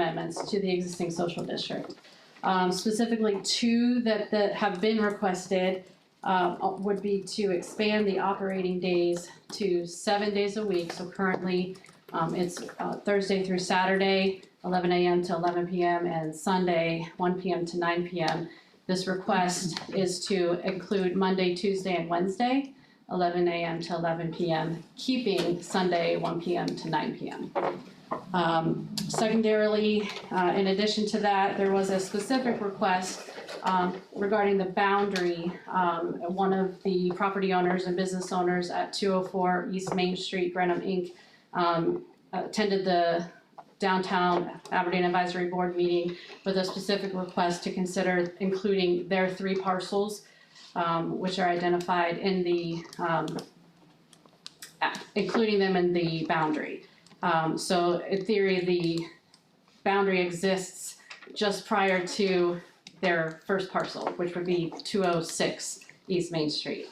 amendments to the existing social district. Um, specifically, two that, that have been requested, um, uh, would be to expand the operating days to seven days a week. So currently, um, it's, uh, Thursday through Saturday, eleven AM to eleven PM, and Sunday, one PM to nine PM. This request is to include Monday, Tuesday, and Wednesday, eleven AM to eleven PM, keeping Sunday, one PM to nine PM. Um, secondarily, uh, in addition to that, there was a specific request um, regarding the boundary. Um, one of the property owners and business owners at two oh four East Main Street, Grenham Inc., um, attended the downtown Aberdeen Advisory Board meeting with a specific request to consider including their three parcels, um, which are identified in the, um, a- including them in the boundary. Um, so in theory, the boundary exists just prior to their first parcel, which would be two oh six East Main Street.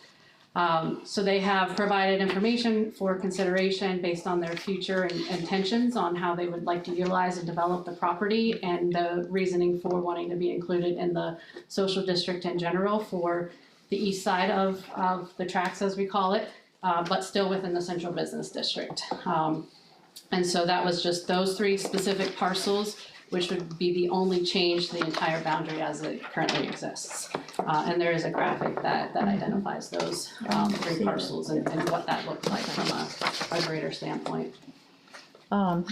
Um, so they have provided information for consideration based on their future in- intentions on how they would like to utilize and develop the property and the reasoning for wanting to be included in the social district in general for the east side of, of the tracks, as we call it, uh, but still within the central business district. Um, and so that was just those three specific parcels, which would be the only change to the entire boundary as it currently exists. Uh, and there is a graphic that, that identifies those, um, three parcels and, and what that looked like from a, a greater standpoint. Um,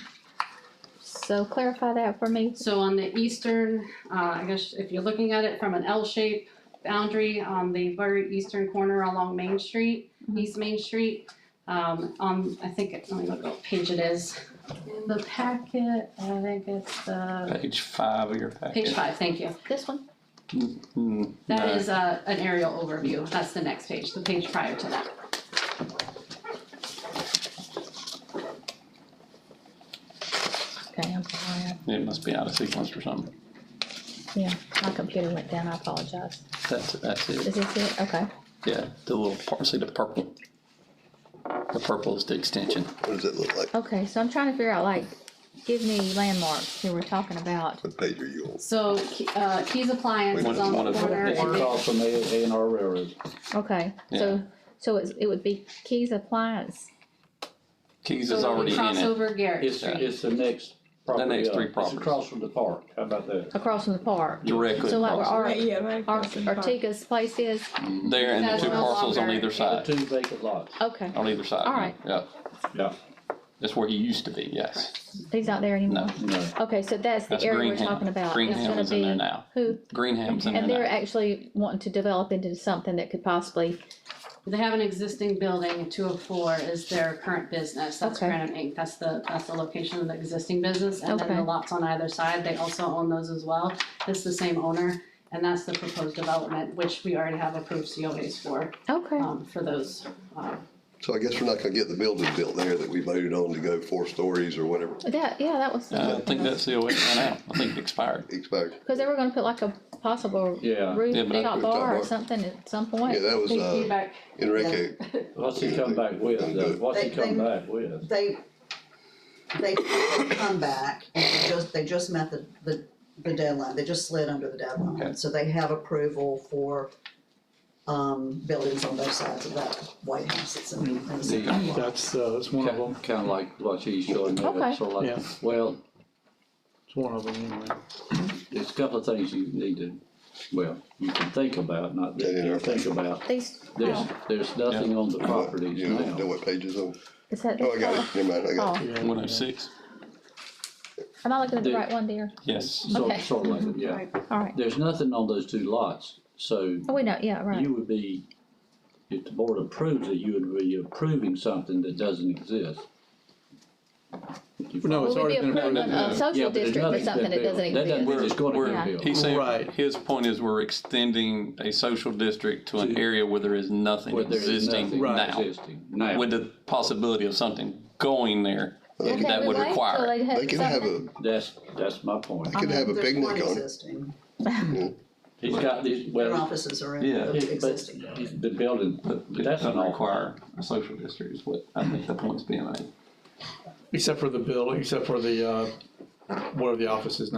so clarify that for me. So on the eastern, uh, I guess if you're looking at it from an L-shaped boundary on the very eastern corner along Main Street, Mhm. East Main Street, um, on, I think, it- let me look what page it is. In the packet, I think it's uh, the, Page five of your packet. page five, thank you. This one? Hmm, no. That is, uh, an aerial overview, that's the next page, the page prior to that. Okay, I'm sorry. It must be out of sequence or something. My computer went down. I apologize. That's, that's Is it. this it? Okay. Yeah, the little, part- see the purple? The purple is the extension. What does it look like? Okay, so I'm trying to figure out like, give me landmarks that we're talking about. What page are you on? So, Ke- uh, Keys Appliance Wait, is on one the of- corner one of- and It's then across from A, A and R Railroad. Okay, so, so it's, it would be Keys Appliance. Keys is so when we already in cross it. over Garrett It's, Street. it's the next property. next up. three It's properties. across from the park, how about that? Across from the park. Directly So like where across. Ar- Right, yeah, right. Ar- across from the park. Artiga's place is? There and the That's two no parcels on longer- either side, Two vacant lots. Okay, on either side. All right. Yeah, Yeah. that's where he used to be, yes. he's not there anymore. No, No. Okay, so that's the That's area we're Greenham. talking about. It's Greenham gonna is in there be now. Who? Greenham's in there And they're now. actually wanting to develop into something that could possibly, They have an existing building, two oh four is their current business, that's Okay. Granite Inc., that's the, that's the location of the existing business. And then the Okay. lots on either side, they also own those as well, it's the same owner, and that's the proposed development, which we already have approved COAs for, okay. um, for those, um, So I guess we're not gonna get the building built there that we voted on to go four stories or whatever, That, yeah, that was. Uh, I think that's the way it went out. I think it expired. expired. Cause they were gonna put like a possible Yeah. roof Yeah, but I- top Rooftop bar bar. or something at some point. Yeah, that was, uh, feedback. Enrique, What's he come back with, though? What's he They- come they- back with? they, they come back and they just, they just met the, the, the deadline, they just slid under the Okay. deadline. So they have approval for, um, buildings on both sides of that White House, it's in, in the second lot. That's, uh, that's one of them, Kind of like what he's showing me, Okay. so like, Yeah. well, it's one of them anyway. there's a couple of things you need to, well, you can think about, not that you think about. These, There's, oh, there's nothing on the properties you know now. what page is on? is that, Oh, I got it, never mind, I got it. oh, One oh six? am I looking at the The- right one, dear? Yes. Sort, Okay. sort of like, yeah. All right. There's nothing on those two lots, so Oh, we know, yeah, right. you would be, if the board approves it, you would be approving something that doesn't exist. oh, No, Will it's we already be been approving approved. a Yeah, social but there's district for nothing's been something that built. doesn't That doesn't mean exist? it's gonna We're- be built. He's saying, Right. his point is we're extending a social district to an To- area where there is nothing where there is existing nothing now. existing now. With the possibility of something going there, Okay, that would relate, so require it. they'd have They can have a, something- That's, that's my point. they can have a There's one picnic on it. existing, He's got these, their well, offices are in Yeah. yeah, the but existing building. the building, but it but that's doesn't an awkward. require a social district is what I think the point's being made. Except for the building, except for the, uh, where the office is now.